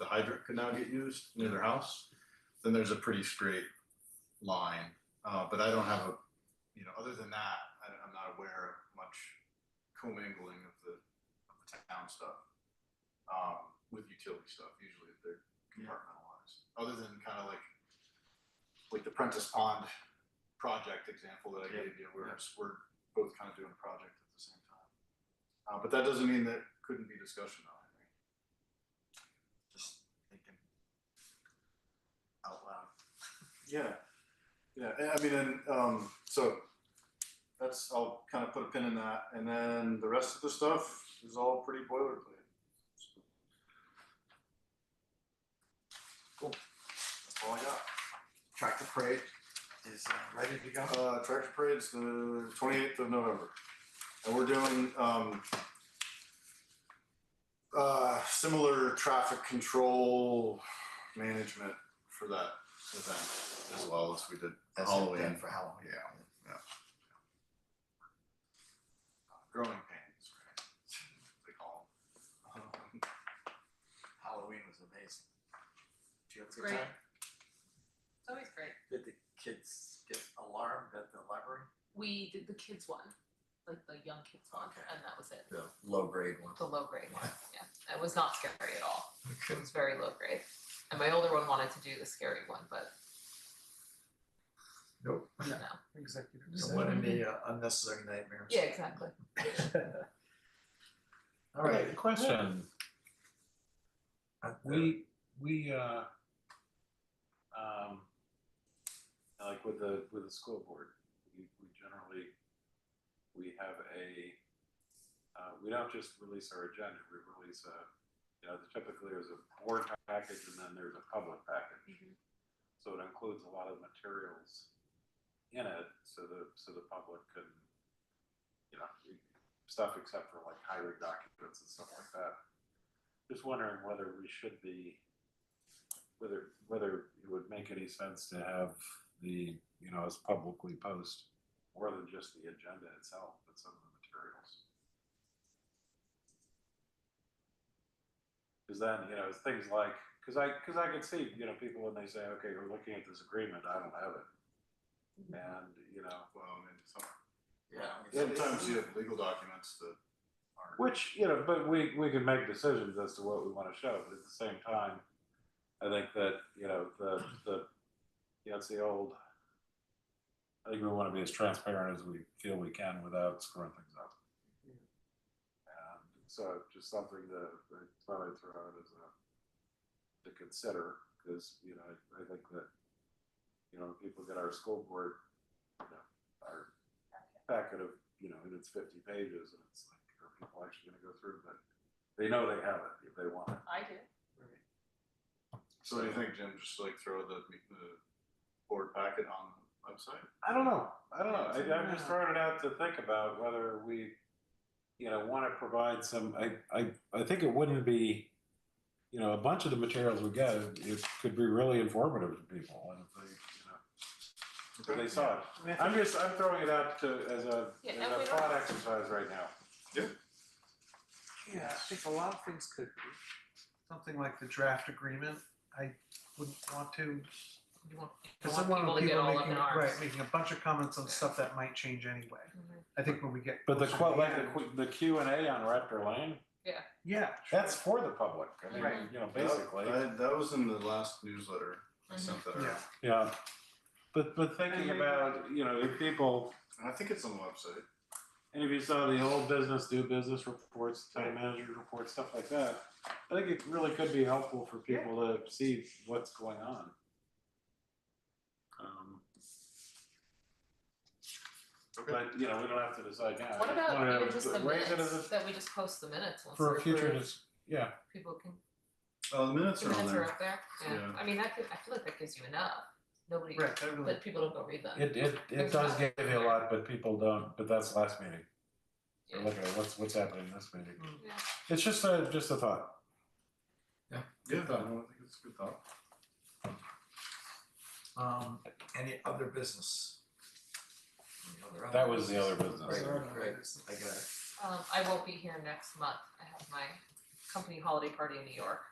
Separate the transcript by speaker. Speaker 1: hydrant could now get used near their house, then there's a pretty straight line. Uh, but I don't have a, you know, other than that, I, I'm not aware of much commingling of the, of the town stuff. Um, with utility stuff, usually they're compartmentalized, other than kind of like, like the Prentice Pond project example that I gave you, where it's- we're both kind of doing a project at the same time. Uh, but that doesn't mean that couldn't be discussion on it.
Speaker 2: Just thinking out loud.
Speaker 1: Yeah, yeah, and I mean, and, um, so that's, I'll kind of put a pin in that, and then the rest of the stuff is all pretty boilerplate. Cool, that's all I got.
Speaker 2: Tractor parade is uh, ready to go.
Speaker 1: Uh, tractor parade's the twenty-eighth of November, and we're doing, um, uh, similar traffic control management for that event as well as we did
Speaker 2: That's it
Speaker 1: Halloween.
Speaker 2: then for Halloween.
Speaker 1: Yeah. growing pains, right? They call them. Um,
Speaker 2: Halloween was amazing. Did you have a good
Speaker 3: Great.
Speaker 2: time?
Speaker 3: It's always great.
Speaker 2: Did the kids get alarmed at the library?
Speaker 3: We did the kids one, like the young kids one,
Speaker 2: Okay.
Speaker 3: and that was it.
Speaker 2: The low grade one.
Speaker 3: The low grade one, yeah. That was not scary at all. It was very low grade. And my older one wanted to do the scary one, but
Speaker 4: Nope.
Speaker 3: no.
Speaker 4: Executive.
Speaker 2: So what any uh, unnecessary nightmares?
Speaker 3: Yeah, exactly.
Speaker 2: All right.
Speaker 5: Question,
Speaker 2: Uh,
Speaker 5: we, we, uh, um, like with the, with the school board, we, we generally, we have a, uh, we don't just release our agenda, we release a, you know, typically there's a board package and then there's a public package. So it includes a lot of materials in it, so the, so the public can, you know, stuff except for like hiring documents and stuff like that. Just wondering whether we should be, whether, whether it would make any sense to have the, you know, us publicly post more than just the agenda itself, but some of the materials. Cause then, you know, it's things like, cause I, cause I could see, you know, people when they say, okay, we're looking at this agreement, I don't have it. And, you know,
Speaker 1: Well, I mean, some,
Speaker 2: Yeah. I mean,
Speaker 1: sometimes you have legal documents that aren't.
Speaker 5: Which, you know, but we, we can make decisions as to what we want to show, but at the same time, I think that, you know, the, the, you know, it's the old, I think we want to be as transparent as we feel we can without screwing things up. And so just something that I thought I'd throw out as a, to consider, because, you know, I, I think that, you know, people get our school board, you know, our packet of, you know, and it's fifty pages, and it's like, are people actually gonna go through, but they know they have it if they want it.
Speaker 3: I do.
Speaker 1: So what do you think, Jim, just like throw the, the board packet on the website?
Speaker 5: I don't know, I don't know, I, I'm just throwing it out to think about whether we, you know, wanna provide some, I, I, I think it wouldn't be, you know, a bunch of the materials we get, it could be really informative to people, and if they, you know, if they saw it. I'm just, I'm throwing it out to, as a,
Speaker 3: Yeah, and we
Speaker 5: as a
Speaker 3: don't-
Speaker 5: thought exercise right now.
Speaker 4: Yeah, I think a lot of things could be. Something like the draft agreement, I wouldn't want to.
Speaker 3: You want, you
Speaker 4: Cause
Speaker 3: want
Speaker 4: I want
Speaker 3: people to get all up
Speaker 4: making,
Speaker 3: in arms.
Speaker 4: right, making a bunch of comments on stuff that might change anyway.
Speaker 3: Mhm.
Speaker 4: I think when we get.
Speaker 5: But the,
Speaker 4: closer
Speaker 5: que-
Speaker 4: to
Speaker 5: like the,
Speaker 4: end-
Speaker 5: que- the Q and A on Raptor Lane,
Speaker 4: Yeah.
Speaker 5: that's for the public, I mean,
Speaker 3: Right.
Speaker 5: you know, basically.
Speaker 1: That, that was in the last newsletter I sent that out.
Speaker 4: Yeah.
Speaker 5: Yeah, but, but thinking about, you know, if people,
Speaker 1: And I think it's on the website.
Speaker 5: and if you saw the old business, new business reports, town manager reports, stuff like that, I think it really could be helpful for people to see what's going on. Um,
Speaker 1: Okay.
Speaker 5: But, you know, we don't have to decide now.
Speaker 3: What
Speaker 5: I just
Speaker 3: about
Speaker 5: wanna
Speaker 3: even just the
Speaker 5: raise it as
Speaker 3: minutes,
Speaker 5: a-
Speaker 3: that we just post the minutes once
Speaker 5: For
Speaker 3: they're
Speaker 5: a future,
Speaker 3: approved?
Speaker 5: dis- yeah,
Speaker 3: People can,
Speaker 1: Oh, the minutes
Speaker 3: the
Speaker 1: are on
Speaker 3: minutes are
Speaker 1: there.
Speaker 3: up there, yeah.
Speaker 1: Yeah.
Speaker 3: I mean, that could, I feel like that gives you enough. Nobody,
Speaker 4: Right, that really,
Speaker 3: but people don't go read them.
Speaker 5: it, it, it
Speaker 3: There's
Speaker 5: does
Speaker 3: not-
Speaker 5: give you a lot, but people don't, but that's last meeting. They're
Speaker 3: Yeah. Mm.
Speaker 5: looking at what's, what's happening this meeting.
Speaker 3: Yeah.
Speaker 5: It's just a, just a thought.
Speaker 1: Yeah, no, I think it's a good thought.
Speaker 2: Um, any other business? Any other
Speaker 5: That was the other business.
Speaker 2: Right,
Speaker 4: Sorry, my
Speaker 2: right,
Speaker 4: business.
Speaker 2: I got it.
Speaker 3: Um, I won't be here next month. I have my company holiday party in New York,